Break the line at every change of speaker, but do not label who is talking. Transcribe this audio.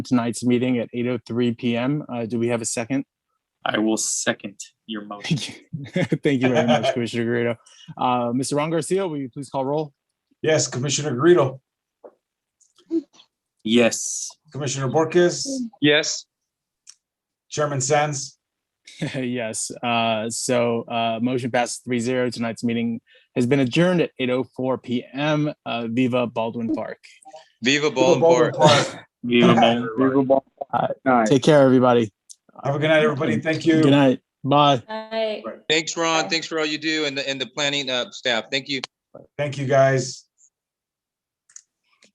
tonight's meeting at 8:03 PM. Uh, Do we have a second?
I will second your motion.
Thank you Thank you very much, Commissioner Garrido. Uh, Mr. Ron Garcia, will you please call roll?
Yes, Commissioner Garrido,
Yes.
Commissioner Borges,
Yes.
Chairman Sands,
Yes, uh, so uh, motion passes three zero. Tonight's meeting has been adjourned at 8:04 PM. Uh, Viva Baldwin Park.
Viva Bolivar.
Viva Bolivar.
Take care, everybody.
Have a good night, everybody. Thank you.
Good night. Bye.
Aye.
Thanks, Ron. Thanks for all you do and the, and the planning uh, staff. Thank you.
Thank you, guys.